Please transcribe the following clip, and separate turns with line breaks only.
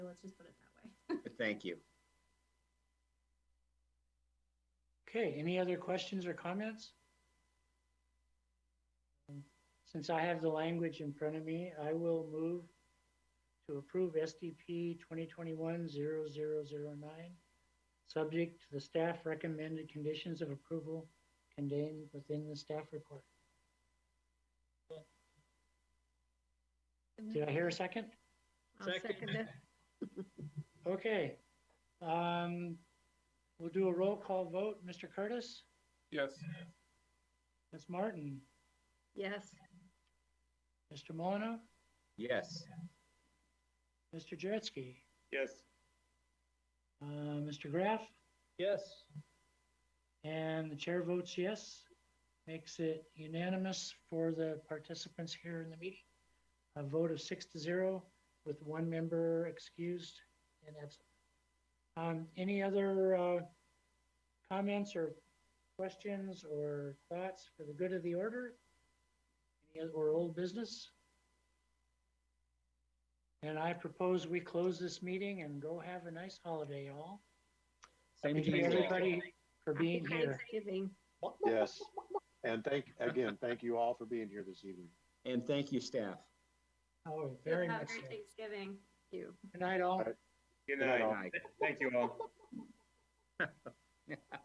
let's just put it that way.
Thank you.
Okay, any other questions or comments? Um, Since I have the language in front of me, I will move to approve SDP 2021-0009, subject to the staff recommended conditions of approval contained within the staff report. Did I hear a second?
I'll
Second.
it.
Okay. Um, We'll do a roll call vote. Mr. Curtis?
Yes.
Ms. Martin?
Yes,
Mr. Molyneux?
Yes.
Mr. Jaretzky?
Yes.
Uh, Mr. Graff,
Yes.
and the chair votes yes, makes it unanimous for the participants here in the meeting. A vote of six to zero with one member excused and absent. Um, any other, uh, comments or questions or thoughts for the good of the order? Any oth- Or old business? And I propose we close this meeting and go have a nice holiday, all.
Same
Thank
to
you,
you all.
everybody, for
happy
being here.
Thanksgiving.
Yes. And thank, again, thank you all for being here this evening.
And thank you, staff.
Oh, very
Have a
much so.
great Thanksgiving. Thank you.
Good night, all.
All right.
Good
Good night,
night.
all.
Night.
Thank you all.